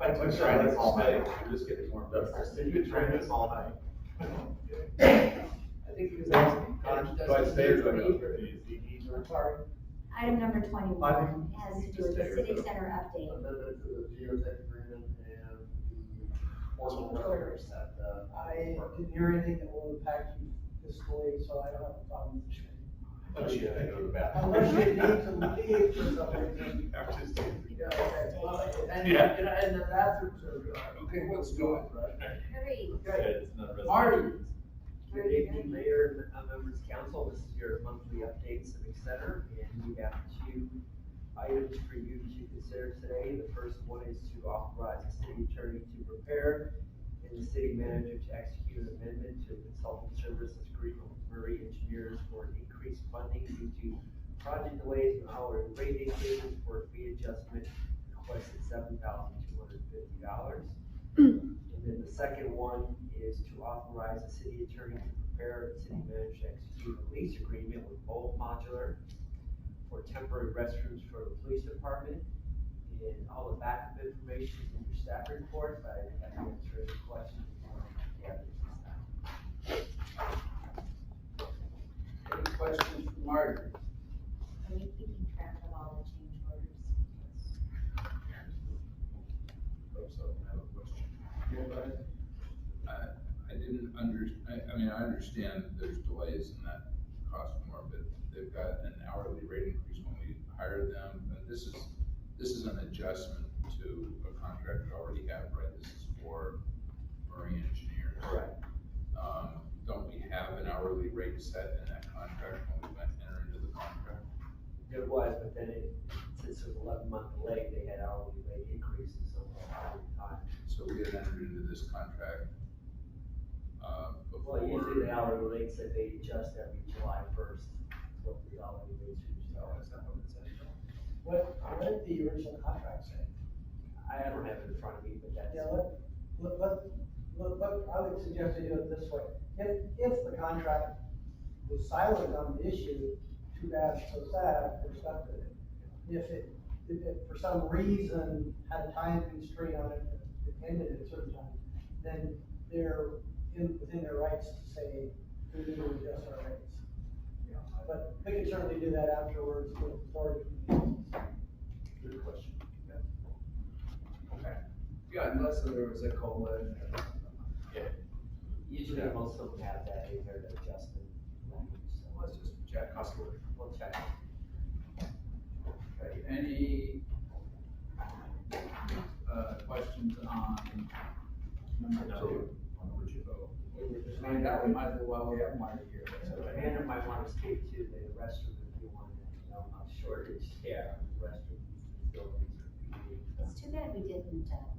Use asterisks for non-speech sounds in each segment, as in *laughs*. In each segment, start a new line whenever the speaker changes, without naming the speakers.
I've been trying this all night, we're just getting warmed up. You've been trying this all night.
I think he was asking. uh, Cottage
Do I
doesn't
stay or do I
need
go?
for it. I'm sorry.
Item number
I
twenty-one
think
has to do
just
with
stay
the
with
civic
it.
center update.
amendment to the geotech agreement and the formal records at the.
I didn't hear anything that will impact you fiscally, so I don't have a problem with sharing.
Oh, shit, I go to the bathroom. *laughs*
Unless you need to leave for some reason.
I'm just kidding.
Yeah, okay. Well, And, you know,
Yeah.
and the bathrooms are, uh,
Okay, what's going?
Hurry.
okay.
Marty.
Good evening, Mayor and uh, members of council. This is your monthly update Civic Center, and we have two items for you to consider today. The first one is to authorize the city attorney to prepare and the city manager to execute an amendment to a consultant services agreement with Murray Engineers for increased funding due to project delays and hourly rate increases for a fee adjustment requested seven thousand two hundred fifty dollars. And then the second one is to authorize the city attorney to prepare and city manager to execute a lease agreement with Bold Modular for temporary restrooms for the police department. And all the backup information is in your staff report, but I can answer any questions. if you have any.
Any questions for Marty?
Are we keeping track of all the change orders?
Oh, So I have a question.
Nobody?
I, I didn't under, I, I mean, I understand that there's delays and that costs more, but they've got an hourly rate increase when we hired them. And this is, this is an adjustment to a contract we already have, right? This is for marine engineers.
Correct.
Um, don't we have an hourly rate set in that contract when we went enter into the contract?
There was, but then it, since it was eleven month delay, they had hourly rate increases uh, over the time.
So we had entered into this contract, uh, before.
Well, usually the hourly rates that they adjust every July first, what the hourly rates are, so.
That's not what it said.
What, what did the original contract say?
I don't have it in front of me, but that's.
Yeah, let, let, let, let, let- I would suggest we do it this way. If, if the contract was silent on the issue, too bad, so sad, we're stuck with it. If it, if it for some reason had a time constraint on it, it ended at a certain time, then they're in, within their rights to say, we need to adjust our rates.
Yeah, I-
But they could certainly do that afterwards with authority. Well,
Good question.
Okay.
Yeah, unless there was a COLA in there.
Usually most of them have that in their adjustment language, so
Let's just check customer.
we'll check.
Okay, any, uh, questions on number two?
On number two.
Man, that we might as well, we have Marty here.
So Hannah might want to speak to the restroom if you want, to know, how shortage. Yeah. Restroom facilities are being, uh,
It's too bad we didn't uh,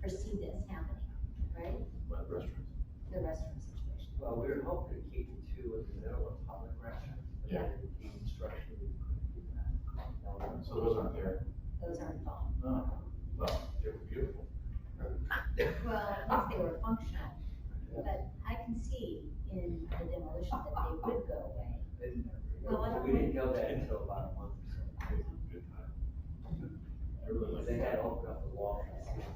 foresee this happening, right?
What restroom?
The restroom situation.
Well, we were hoping to keep the two in the middle of public restrooms, but
Yeah.
then the instruction couldn't do that. No, no.
So those aren't there.
Those aren't involved.
No.
Uh-huh.
Well, they were beautiful.
Well, at least they were functional. But I can see in the demolition that they would go away.
And
Well, why don't
We didn't know that until about a month
It
or
was a good time. I
so.
really
But
like
They had
that. All
opened up the wall.
right.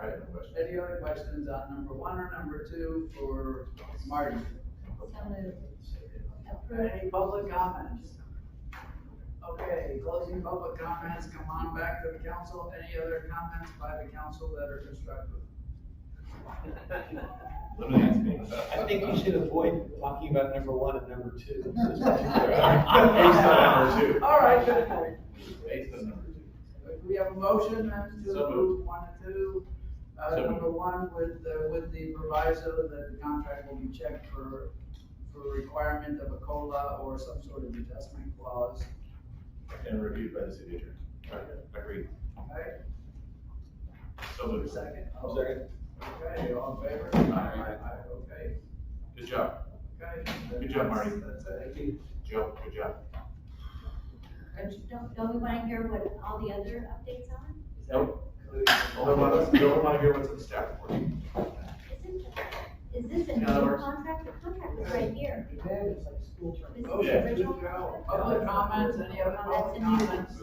I have no question.
Any other questions on number one or number two for Marty?
So moved. Approved.
Any public comments? Okay, closing public comments, come on back to the council. Any other comments by the council that are constructive?
Let me ask me.
I think you should avoid talking about number one and number
*laughs*
two.
Based on number two.
All right, good point.
Based on number two.
We have a motion then to
So moved.
approve one and two. Uh,
So moved.
number one with, the- with the proviso that the contract will be checked for, for requirement of a COLA or some sort of adjustment clause.
And reviewed by the city attorney. Right, agreed.
Okay,
So moved.
second.
Second.
Okay, all in favor?
Aye.
Aye, Okay,
Good job.
okay.
Good job, Marty.
That's it.
Joe, good job.
Don't- Don't, don't we want to hear what all the other updates are?
Don't want to, don't want to hear what's in the staff report.
Isn't, is this a new
No, we're-
contract? The contract is right here.
Man, it's like school term.
This is
Oh, yeah,
the original
Good job.
contract.
Public comments, any other
Well, that's
public
a new one.
comments?